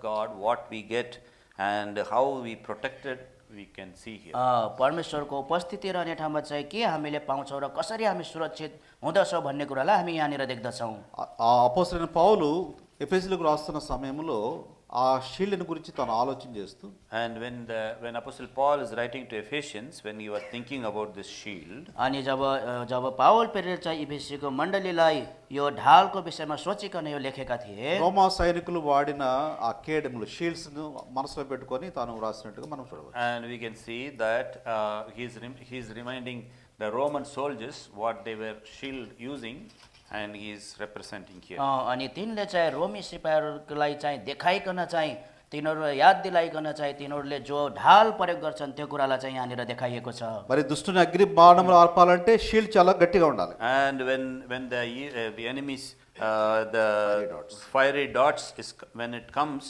God, what we get, and how we protect it, we can see here. अ, परमेश्वरको उपस्थिति रहने ठाउँमा चाहिँ के हामीले पाउँछौँ र कसरी हामी सुरक्षित हुँदछौँ भन्ने कुरालाई हामी यहाँनिर देख्दछौँ ఆ- ఆ అపోసరైన పౌలు ఎఫెసీలకు రాస్తున్న సమయంలో ఆ షీల్డ్ని గురించి తను ఆలోచన చేస్తూ And when the when Apostle Paul is writing to Ephesians, when he was thinking about this shield, अनि जब अ, जब पावल पेरेर चाहिँ इबिसीको मण्डलीलाई यो ढालको विषयमा सोचिकन यो लेखेका थिए రోమా సైనికులు వాడిన ఆ కేడములు షీల్డ్స్ను మనసులో పెట్టుకొని తాను రాసినట్టుగా మనం చూడవచ్చు and we can see that uh, he's rem- he's reminding the Roman soldiers what they were shield using, and he's representing here. अ, अनि तिनले चाहिँ रोमी सिपाहीहरूलाई चाहिँ देखाइकन चाहिँ तिनीहरू याद दिलाइकन चाहिँ तिनीहरूले जो ढाल प्रयोग गर्छन् त्यो कुरालाई चाहिँ यहाँनिर देखाइएको छ మరి దుష్టుని అగ్ని బాణములు ఆర్పాలంటే షీల్డ్ చాలా గట్టిగా ఉండాలి And when, when the, e- uh, the enemies, uh, the Fiery darts. fiery darts is, c- when it comes,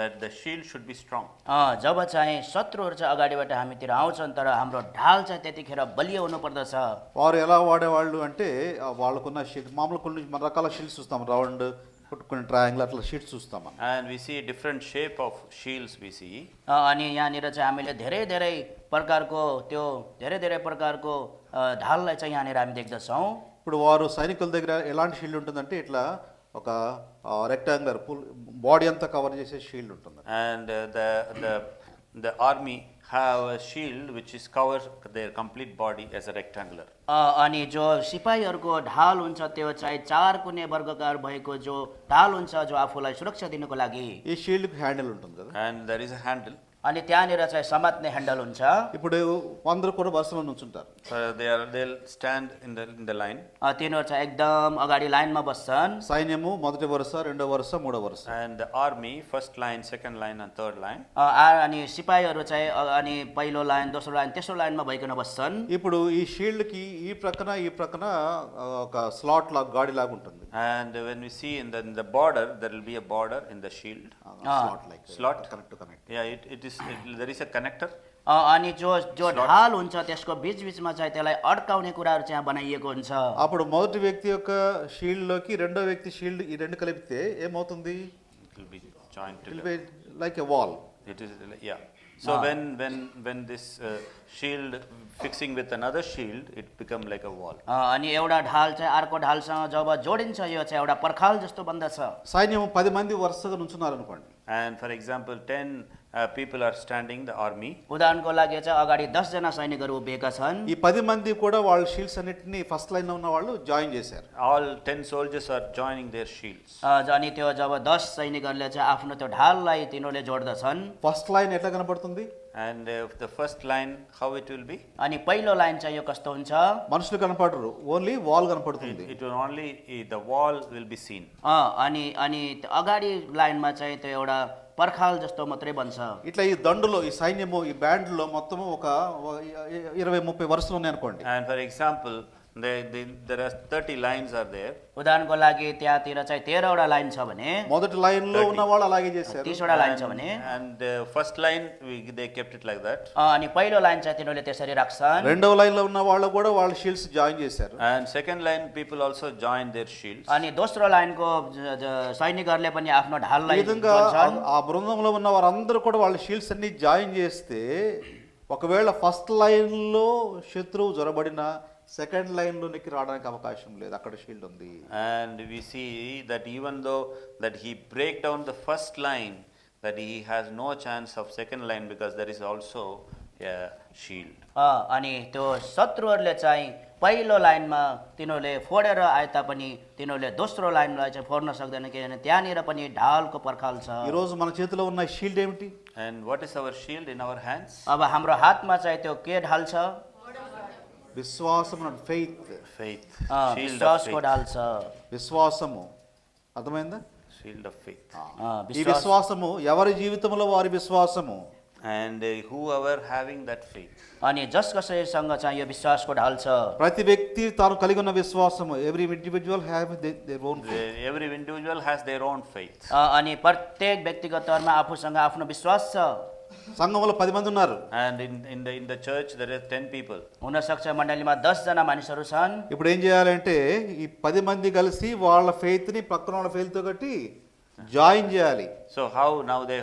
that the shield should be strong. अ, जब चाहिँ शत्रुहरू चाहिँ अगाडिबाट हामीतिर आउँछन् तर हाम्रो ढाल चाहिँ त्यतिखेर बलियो हुनुपर्दछ వారు ఎలా వాడేవాళ్ళు అంటే ఆ వాళ్ళకున్న షీల్డ్ మామూలు కొన్ని మన రకాల షీల్డ్స్ చూస్తాం రౌండ్ కొన్ని ట్రయాంగిల్ అట్లా షీల్డ్స్ చూస్తాం మనం And we see different shape of shields we see. अ, अनि यहाँनिर चाहिँ हामीले धेरै धेरै प्रकारको त्यो धेरै धेरै प्रकारको अ, ढाललाई चाहिँ यहाँनिर हामी देख्दछौँ ఇప్పుడు వారు సైనికుల దగ్గర ఎలాంటి షీల్డ్ ఉంటుందంటే ఇట్లా ఒక రెక్టాంగులర్ ఫుల్ బాడీ అంతా కవర్ చేసే షీల్డ్ ఉంటుంది And uh, the, the, the army have a shield which is covers their complete body as a rectangular. अ, अनि जो सिपाहीहरूको ढाल हुन्छ त्यो चाहिँ चार कुने वर्गकार भएको जो ढाल हुन्छ जो आफूलाई सुरक्षा दिनुको लागि ఈ షీల్డ్కి హ్యాండిల్ ఉంటుంది కదా And there is a handle, अनि त्यहाँनिर चाहिँ समात्ने ह्यान्डल हुन्छ ఇప్పుడు అందరూ కూడా వరుసలో నుంచుంటారు so they are, they'll stand in the, in the line. अ, तिनीहरू चाहिँ एकदम अगाडि लाइनमा बस्छन् సైన్యము మొదటి వరుస రెండో వరుస మూడో వరుస And the army, first line, second line and third line. अ, आ- अनि सिपाहीहरू चाहिँ अ- अनि पहिलो लाइन दोस्रो लाइन तेस्रो लाइनमा भइकन बस्छन् ఇప్పుడు ఈ షీల్డ్కి ఈ ప్రక్కన ఈ ప్రక్కన ఆ, ఒక స్లాట్ లాగా గాడి లాగా ఉంటుంది And when we see in the, in the border, there will be a border in the shield. Slot like Slot. Connect connect Yeah, it, it is, it, there is a connector अ, अनि जो जो ढाल हुन्छ त्यसको बिचबिचमा चाहिँ त्यसलाई अड्काउने कुराहरू चाहिँ यहाँ बनाइएको हुन्छ అప్పుడు మొదటి వ్యక్తి యొక్క షీల్డ్ లోకి రెండో వ్యక్తి షీల్డ్ ఈ రెండు కలిపితే ఏమవుతుంది it will be joined together. Like a wall It is, like- yeah. So when, when, when this uh, shield fixing with another shield, it become like a wall. अ, अनि एउटा ढाल चाहिँ अर्को ढालसँग जब जोडिन्छ यो चाहिँ एउटा पर्खाल जस्तो बन्दछ సైన్యం పది మంది వరుసగా నుంచున్నారు అనుకోండి And for example, ten uh, people are standing, the army, उदाहरणको लागि चाहिँ अगाडि दसजना सैनिकहरू उभिएका छन् ఈ పది మంది కూడా వాళ్ళ షీల్డ్స్ అన్నిటిని ఫస్ట్ లైన్ ఉన్న వాళ్ళు జాయిన్ చేశారు all ten soldiers are joining their shields. अ, ज- अनि त्यो जब दस सैनिकहरूले चाहिँ आफ्नो त्यो ढाललाई तिनीहरूले जोड्दछन् ఫస్ట్ లైన్ ఎట్లా కనబడుతుంది And uh, the first line, how it will be? अनि पहिलो लाइन चाहिँ यो कस्तो हुन्छ మనుషులు కనపడరు ఓన్లీ వాల్ కనపడుతుంది It will only, eh, the wall will be seen. अ, अनि अनि त्यो अगाडि लाइनमा चाहिँ त्यो एउटा पर्खाल जस्तो मात्रै बन्छ ఇట్లా ఈ దండులో ఈ సైన్యము ఈ బ్యాండ్లో మొత్తము ఒక ఒక ఇరవై ముప్పై వరుసలు ఉన్నాయి అనుకోండి And for example, there, there- there are thirty lines are there. उदाहरणको लागि त्यहाँतिर चाहिँ तेह्रवटा लाइन छ भने మొదటి లైన్ లో ఉన్న వాళ్ళు అలాగే చేశారు तिसवटा लाइन छ भने And uh, first line, we, they kept it like that. अ, अनि पहिलो लाइन चाहिँ तिनीहरूले त्यसरी राख्छन् రెండవ లైన్ లో ఉన్న వాళ్ళు కూడా వాళ్ళ షీల్డ్స్ జాయిన్ చేశారు And second line, people also joined their shields. अनि दोस्रो लाइनको ज- ज- सैनिकहरूले पनि आफ्नो ఈ ढाललाई విధంగా जोड्छन्। ఆ- ఆ బృందంలో ఉన్న వారందరూ కూడా వాళ్ళ షీల్డ్స్ అన్ని జాయిన్ చేస్తే ఒకవేళ ఫస్ట్ లైన్ లో శత్రువు జ్వరబడిన సెకండ్ లైన్ లోనికి రావడానికి అవకాశం లేదు అక్కడ షీల్డ్ ఉంది And we see that even though that he break down the first line, that he has no chance of second line because there is also a shield. अ, अनि त्यो शत्रुहरूले चाहिँ पहिलो लाइनमा तिनीहरूले फोडेर आए तापनि तिनीहरूले दोस्रो लाइनलाई चाहिँ फोड्न सक्दैन किनभने त्यहाँनिर पनि ढालको पर्खाल छ ఈ రోజు మన చేతిలో ఉన్న షీల్డ్ ఏమిటి And what is our shield in our hands? अब हाम्रो हातमा चाहिँ त्यो के ढाल छ విశ్వాసం faith Faith. Uh, Shield of विश्वासको faith. ढाल छ విశ్వాసము అర్థమైందా Shield of faith. अ, ఈ विश्वास విశ్వాసము ఎవరి జీవితంలో వారి విశ్వాసము And uh, whoever having that faith, अनि जस कसैसँग चाहिँ यो विश्वासको ढाल छ ప్రతి వ్యక్తి తాను కలిగి ఉన్న విశ్వాసము every individual have their own they- Uh, every individual has their own faith. अ, अनि प्रत्येक व्यक्तिगत तौरमा आफूसँग आफ्नो विश्वास छ సంఘంలో పది మంది ఉన్నారు And in, in the, in the church, there are ten people. हुनसक्छ मण्डलीमा दसजना मानिसहरू छन् ఇప్పుడు ఏం చేయాలంటే ఈ పది మంది కలిసి వాళ్ళ faith ని పక్కన వాళ్ళ faith తో కట్టి జాయిన్ చేయాలి So how now they